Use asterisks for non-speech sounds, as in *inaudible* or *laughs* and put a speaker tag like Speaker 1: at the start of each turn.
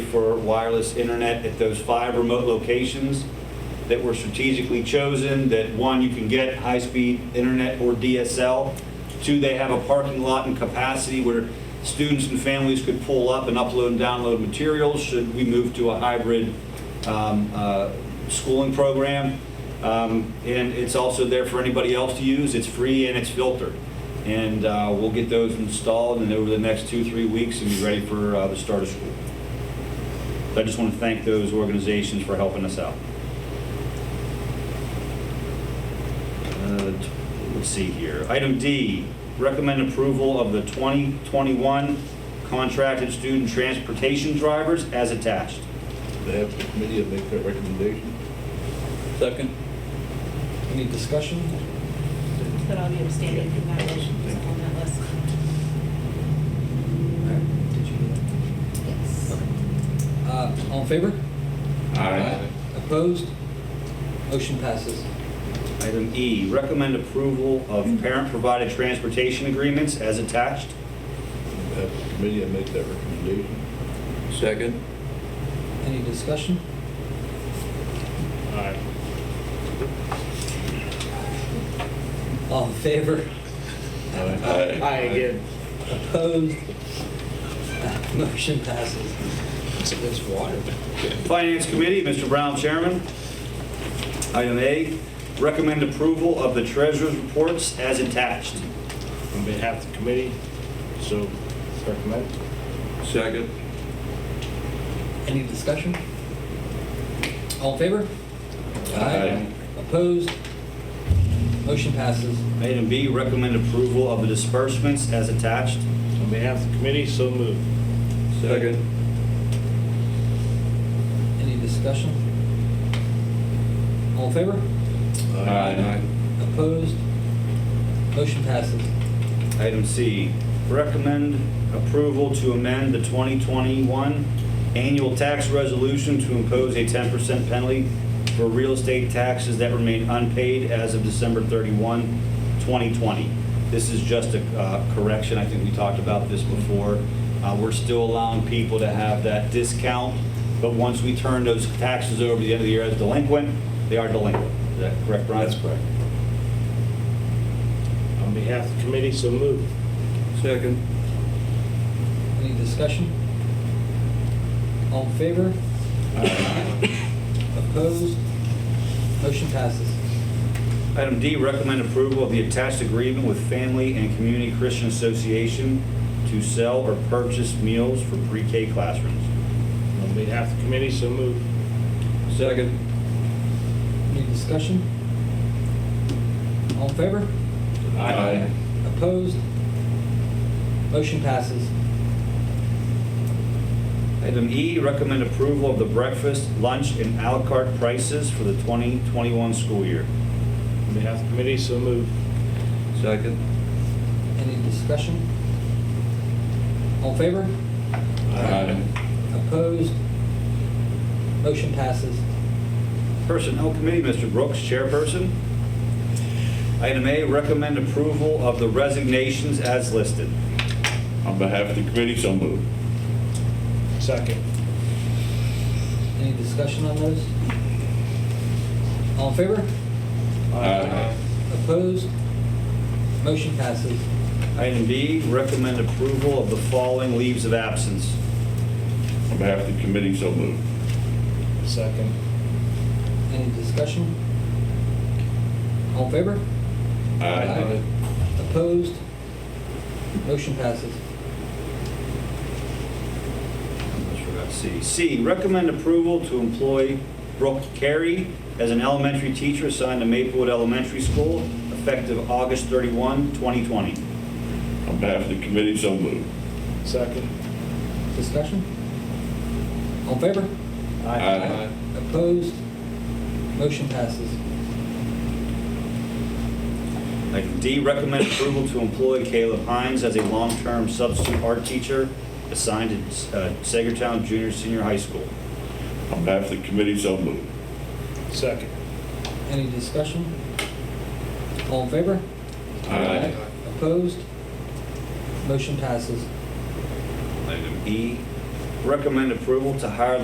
Speaker 1: for wireless internet at those five remote locations that were strategically chosen, that one, you can get high-speed internet or DSL. Two, they have a parking lot and capacity where students and families could pull up and upload and download materials should we move to a hybrid um, uh, schooling program. Um, And it's also there for anybody else to use. It's free and it's filtered. And uh, we'll get those installed and over the next two, three weeks and be ready for uh, the start of school. So I just want to thank those organizations for helping us out. Uh, t- Let's see here. Item D, recommend approval of the 2021 contracted student transportation drivers as attached.
Speaker 2: They have the committee make their recommendation.
Speaker 3: Second.
Speaker 4: Any discussion?
Speaker 5: But I'll be abstaining from that motion, because I'm on that list. Yes.
Speaker 4: Uh, All in favor? Opposed? Motion passes.
Speaker 1: Item E, recommend approval of parent-provided transportation agreements as attached.
Speaker 2: They have the committee make their recommendation.
Speaker 3: Second.
Speaker 4: Any discussion? All in favor?
Speaker 6: Uh,
Speaker 3: Aye.
Speaker 4: again. Opposed? *laughs* Motion passes. It's against water.
Speaker 1: Finance Committee, Mr. Brown, Chairman. Item A, recommend approval of the treasurer's reports as attached.
Speaker 6: on behalf of the committee, so recommend.
Speaker 3: Second.
Speaker 4: Any discussion? All in favor?
Speaker 1: Aye.
Speaker 4: Opposed? Motion passes.
Speaker 1: Item B, recommend approval of the disbursements as attached.
Speaker 6: On behalf of the committee, so move.
Speaker 3: Second.
Speaker 4: Any discussion? All in favor? Opposed? Motion passes.
Speaker 1: Item C, recommend approval to amend the 2021 annual tax resolution to impose a 10% penalty for real estate taxes that remain unpaid as of December 31, 2020. This is just a uh, correction, I think we talked about this before. Uh, We're still allowing people to have that discount, but once we turn those taxes over at the end of the year as delinquent, they are delinquent. Is that correct, Brian? That's correct.
Speaker 6: On behalf of the committee, so move.
Speaker 3: Second.
Speaker 4: Any discussion? All in favor?
Speaker 1: Uh,
Speaker 4: Opposed? Motion passes.
Speaker 1: Item D, recommend approval of the attached agreement with Family and Community Christian Association to sell or purchase meals for pre-K classrooms.
Speaker 6: On behalf of the committee, so move.
Speaker 3: Second.
Speaker 4: Any discussion? All in favor? Opposed? Motion passes.
Speaker 1: Item E, recommend approval of the breakfast, lunch, and à la carte prices for the 2021 school year.
Speaker 6: On behalf of the committee, so move.
Speaker 3: Second.
Speaker 4: Any discussion? All in favor? Opposed? Motion passes.
Speaker 1: Personnel Committee, Mr. Brooks, chairperson. Item A, recommend approval of the resignations as listed.
Speaker 7: On behalf of the committee, so moved.
Speaker 6: Second.
Speaker 4: Any discussion on those? All in favor?
Speaker 7: Aye.
Speaker 4: Opposed? Motion passes.
Speaker 1: Item B, recommend approval of the following leaves of absence.
Speaker 7: On behalf of the committee, so moved.
Speaker 6: Second.
Speaker 4: Any discussion? All in favor? Opposed? Motion passes.
Speaker 1: Let's forgot C. C, recommend approval to employ Brooke Carey as an elementary teacher assigned to Maplewood Elementary School effective August 31, 2020.
Speaker 7: On behalf of the committee, so moved.
Speaker 6: Second.
Speaker 4: Discussion? All in favor? Opposed? Motion passes.
Speaker 1: Item D, recommend approval to employ Caleb Hines as a long-term substitute art teacher assigned to uh, Sagertown Junior Senior High School.
Speaker 7: On behalf of the committee, so moved.
Speaker 6: Second.
Speaker 4: Any discussion? All in favor? Opposed? Motion passes.
Speaker 1: Item E, recommend approval to hire the